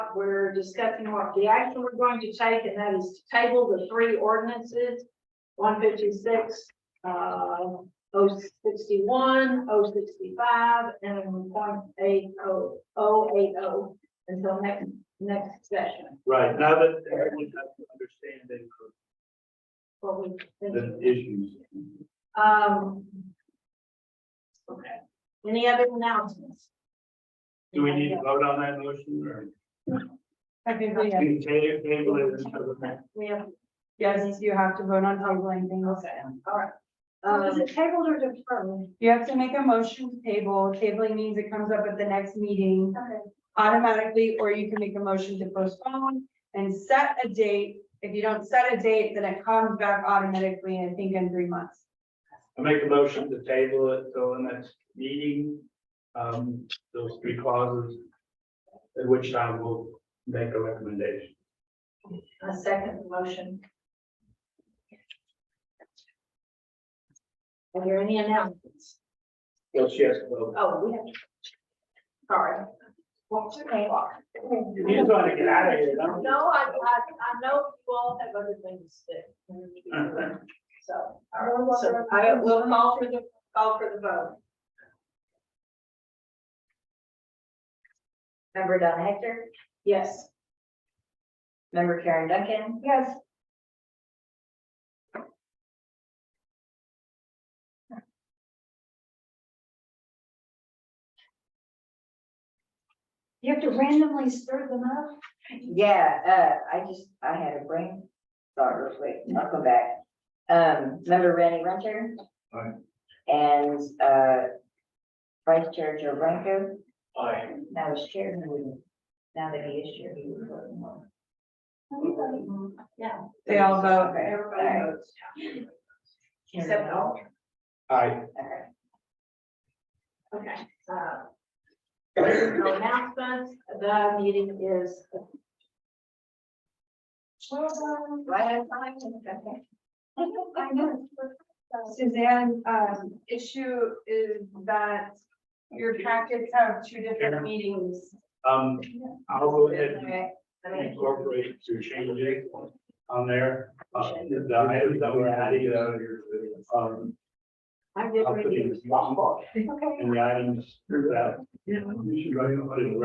out, we're discussing what the action we're going to take, and that is to table the three ordinances. One fifty-six, uh, oh sixty-one, oh sixty-five, and point eight oh, oh eight oh, until next, next session, Right, now that everyone has to understand and what we. the issues. Um. Okay, any other announcements? Do we need to vote on that motion or? I think we have, We ta- table it until the next- We have, yes, you have to vote on tabling things. okay, all right. Uh, is it tabled or deferred? You have to make a motion to table. Tabling means it comes up at the next meeting Okay. automatically, or you can make a motion to postpone and set a date. If you don't set a date, then it comes back automatically, I think in three months. I make a motion to table it till the next meeting. Um, those three clauses. At which time we'll make a recommendation. A second motion. Are there any announcements? Yes, yes, vote. Oh, we have. Sorry. What's your name? You just want to get out of here, don't you? No, I, I, I know you all have other things to do. So, all right, so I will call for the, call for the vote. Member Donna Hector, Yes. member Karen Duncan, Yes. You have to randomly stir them up? yeah, uh, I just, I had a brain thought real quick, I'll come back. Um, member Randy Renter. Aye. And, uh, Vice Chair Joe Blanco, Aye. now is chair, who wouldn't- now that he is chair, he would vote no. Yeah. They all vote. Okay, Everybody votes. Except all. Aye. Okay. Okay. uh, No announcements, the meeting is. Right on time, okay. I know. Suzanne, um, issue is that your packets have two different meetings. Um, I'll go ahead and Okay, I mean, incorporate to change it on there. Uh, the items that we're adding, uh, um, I'm just I'll put reading. in- And the items that. You should write it in the